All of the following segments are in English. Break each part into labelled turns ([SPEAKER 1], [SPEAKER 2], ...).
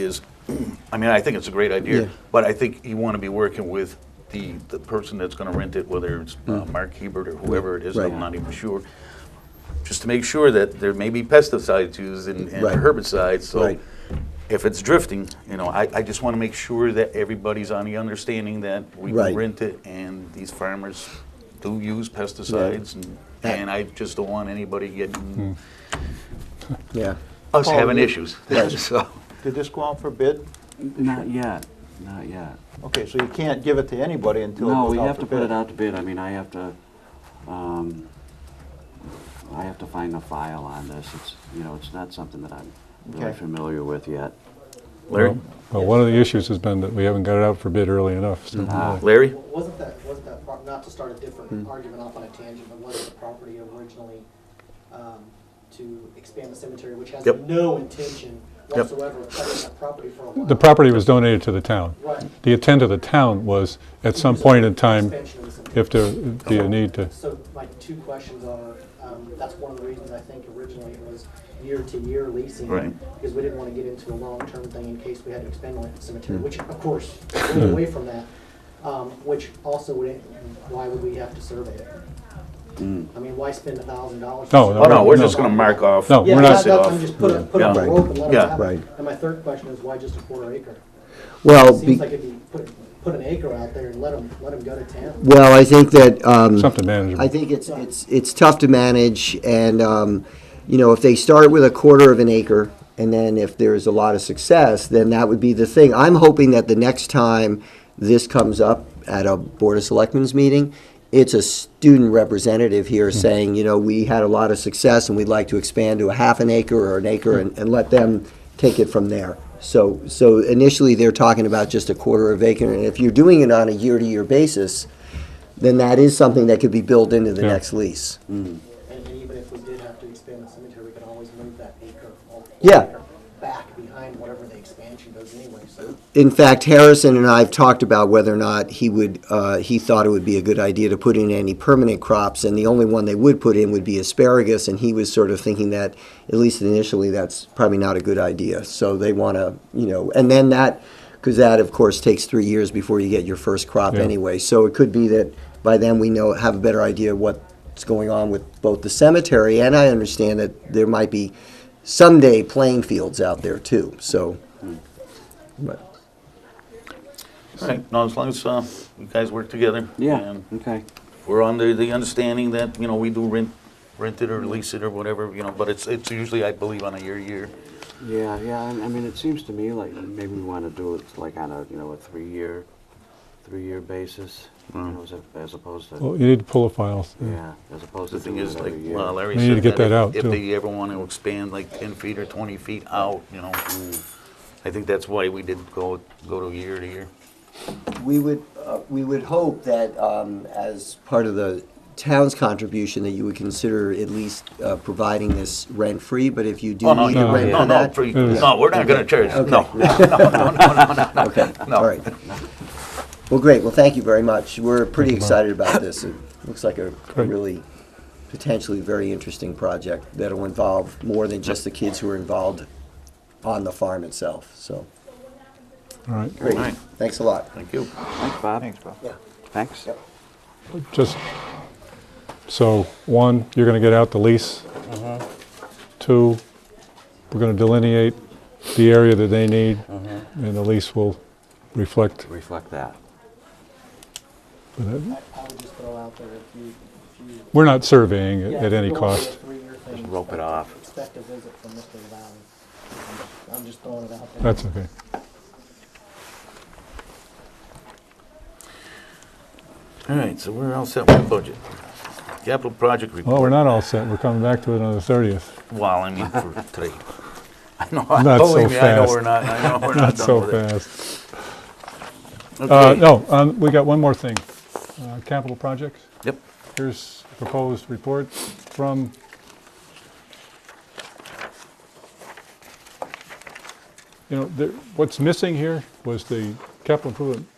[SPEAKER 1] is, I mean, I think it's a great
[SPEAKER 2] Yeah.
[SPEAKER 1] idea, but I think you want to be working with the, the person that's going to rent it, whether it's uh, Mark Hebert or whoever it is,
[SPEAKER 2] Mm-hmm. Right.
[SPEAKER 1] I'm not even sure, just to make sure that there may be pesticides used and and
[SPEAKER 2] Right.
[SPEAKER 1] herbicides, so
[SPEAKER 2] Right.
[SPEAKER 1] if it's drifting, you know, I, I just want to make sure that everybody's on the understanding that we
[SPEAKER 2] Right.
[SPEAKER 1] can rent it and these farmers do use pesticides, and-
[SPEAKER 2] Yeah.
[SPEAKER 1] and I just don't want anybody getting,
[SPEAKER 2] Yeah,
[SPEAKER 1] us
[SPEAKER 3] Paul,
[SPEAKER 1] having
[SPEAKER 3] you-
[SPEAKER 1] issues, so.
[SPEAKER 3] Did this go out for bid?
[SPEAKER 4] Not yet, not yet.
[SPEAKER 3] Okay, so you can't give it to anybody until it
[SPEAKER 4] No,
[SPEAKER 3] goes
[SPEAKER 4] we
[SPEAKER 3] out
[SPEAKER 4] have
[SPEAKER 3] for
[SPEAKER 4] to put
[SPEAKER 3] bid?
[SPEAKER 4] it out to bid. I mean, I have to, um, I have to find a file on this. It's, you know, it's not something that I'm really
[SPEAKER 3] Okay.
[SPEAKER 4] familiar with yet.
[SPEAKER 1] Larry?
[SPEAKER 5] Well, one of the issues has been that we haven't got it out for bid early enough. so-
[SPEAKER 4] Ah.
[SPEAKER 1] Larry?
[SPEAKER 6] Wasn't that, wasn't that, pro- not to start a different argument off on a tangent, but wasn't the property originally um, to expand the cemetery, which has
[SPEAKER 1] Yep.
[SPEAKER 6] no intention whatsoever of touching that property for a while?
[SPEAKER 5] The property was donated to the town.
[SPEAKER 6] Right.
[SPEAKER 5] The intent of the town was, at some point in time,
[SPEAKER 6] Expansion of the cemetery.
[SPEAKER 5] if there be a need to,
[SPEAKER 6] Uh-huh. So my two questions are, um, that's one of the reasons I think originally it was year-to-year leasing.
[SPEAKER 1] Right.
[SPEAKER 6] Because we didn't want to get into a long-term thing in case we had to expand on the cemetery,
[SPEAKER 1] Hmm.
[SPEAKER 6] which of course, we're away from that. Um, which also wouldn't, why would we have to survey it? I mean, why spend a thousand dollars?
[SPEAKER 5] No,
[SPEAKER 1] Hmm. Oh, no, we're just
[SPEAKER 5] No.
[SPEAKER 1] going to mark off.
[SPEAKER 5] No,
[SPEAKER 6] Yeah,
[SPEAKER 5] we're not-
[SPEAKER 6] that- that's, I'm just put, it- put it on the
[SPEAKER 1] Yeah.
[SPEAKER 6] rope and let it
[SPEAKER 1] Yeah.
[SPEAKER 6] happen.
[SPEAKER 2] Right.
[SPEAKER 6] And my third question is why just a quarter acre?
[SPEAKER 2] well,
[SPEAKER 6] Seems
[SPEAKER 2] be-
[SPEAKER 6] like if you put, put an acre out there and let them, let them go to town.
[SPEAKER 2] well, I think that, um,
[SPEAKER 5] something manageable.
[SPEAKER 2] I think it's, it's, it's tough to manage, and, um, you know, if they start with a quarter of an acre, and then if there's a lot of success, then that would be the thing. I'm hoping that the next time this comes up at a Board of Selectmen's meeting, it's a student representative here saying, you know, we had a lot of success, and we'd like to expand to a half an acre or an acre, and, and let them take it from there. So, so initially, they're talking about just a quarter of acre, and if you're doing it on a year-to-year basis, then that is something that could be built into the
[SPEAKER 5] Yeah.
[SPEAKER 2] next lease.
[SPEAKER 6] And, and even if we did have to expand the cemetery, we could always move that acre or quarter
[SPEAKER 2] Yeah.
[SPEAKER 6] acre back behind whatever the expansion goes anyway, so.
[SPEAKER 2] In fact, Harrison and I have talked about whether or not he would, uh, he thought it would be a good idea to put in any permanent crops, and the only one they would put in would be asparagus, and he was sort of thinking that, at least initially, that's probably not a good idea. So they want to, you know, and then that, because that, of course, takes three years before you get your first crop
[SPEAKER 5] Yeah.
[SPEAKER 2] anyway. So it could be that by then we know, have a better idea what's going on with both the cemetery, and I understand that there might be someday playing fields out there too, so. but-
[SPEAKER 1] All right, no, as long as uh, you guys work together.
[SPEAKER 4] Yeah,
[SPEAKER 1] and
[SPEAKER 4] okay.
[SPEAKER 1] We're under the understanding that, you know, we do rent, rent it or lease it or whatever, you know, but it's, it's usually, I believe, on a year-year.
[SPEAKER 4] Yeah, yeah, I I mean, it seems to me like maybe we want to do it like on a, you know, a three-year, three-year basis, you
[SPEAKER 1] Mm.
[SPEAKER 4] know, as a- as opposed
[SPEAKER 5] Well,
[SPEAKER 4] to,
[SPEAKER 5] you need to pull the files.
[SPEAKER 4] yeah, as opposed to
[SPEAKER 1] The thing
[SPEAKER 4] doing
[SPEAKER 1] is,
[SPEAKER 4] it
[SPEAKER 1] like
[SPEAKER 4] every year.
[SPEAKER 1] uh, Larry
[SPEAKER 5] We need to
[SPEAKER 1] said,
[SPEAKER 5] get
[SPEAKER 1] that
[SPEAKER 5] that out,
[SPEAKER 1] if- if
[SPEAKER 5] too.
[SPEAKER 1] they ever want to expand like 10 feet or 20 feet out, you know, I think that's why we did go, go to year to year.
[SPEAKER 2] We would, uh, we would hope that um, as part of the town's contribution, that you would consider at least uh, providing this rent-free, but if you do
[SPEAKER 1] Oh, no,
[SPEAKER 2] need to
[SPEAKER 1] no,
[SPEAKER 2] rent
[SPEAKER 1] no, no,
[SPEAKER 2] for that.
[SPEAKER 1] free- no, we're not going to charge, no, no,
[SPEAKER 2] Okay,
[SPEAKER 1] No.
[SPEAKER 2] all right. Well, great, well, thank you very much. We're pretty excited about this. It looks like a a
[SPEAKER 5] Great.
[SPEAKER 2] really potentially very interesting project that'll involve more than just the kids who are involved on the farm itself, so.
[SPEAKER 5] All right.
[SPEAKER 2] Great,
[SPEAKER 1] All right.
[SPEAKER 2] thanks a lot.
[SPEAKER 1] thank you.
[SPEAKER 4] Thanks, Bob.
[SPEAKER 3] Thanks, Bob.
[SPEAKER 4] Thanks.
[SPEAKER 2] Yep.
[SPEAKER 5] Just, so, one, you're going to get out the lease. Two, we're going to delineate the area that they need, and the lease will reflect
[SPEAKER 4] Reflect that.
[SPEAKER 5] that.
[SPEAKER 6] I, I would just throw out there if you, if you.
[SPEAKER 5] We're not surveying it
[SPEAKER 6] Yeah,
[SPEAKER 5] at
[SPEAKER 6] if
[SPEAKER 5] any
[SPEAKER 6] you want to do
[SPEAKER 5] cost.
[SPEAKER 6] a three-year thing,
[SPEAKER 4] Just rope it
[SPEAKER 6] expect-
[SPEAKER 4] off.
[SPEAKER 6] Expect a visit from Mr. Valley. I'm just throwing it out there.
[SPEAKER 5] That's okay.
[SPEAKER 1] All right, so we're all set with the budget. Capital project report.
[SPEAKER 5] Well, we're not all set. We're coming back to it on the 30th.
[SPEAKER 1] Well, I mean, for today. I know, I
[SPEAKER 5] Not so
[SPEAKER 1] believe me, I know
[SPEAKER 5] fast.
[SPEAKER 1] we're not, I know we're not
[SPEAKER 5] Not so
[SPEAKER 1] done with it.
[SPEAKER 5] fast. Uh,
[SPEAKER 1] Okay.
[SPEAKER 5] No, um, we got one more thing. Uh, Capital projects.
[SPEAKER 1] Yep,
[SPEAKER 5] Here's proposed report from you know, there, what's missing here was the capital improvement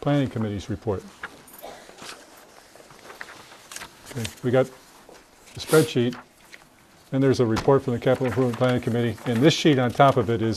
[SPEAKER 5] planning committee's report. Okay, We got the spreadsheet And there's a report from the Capital Improvement Planning Committee, and this sheet on top of it is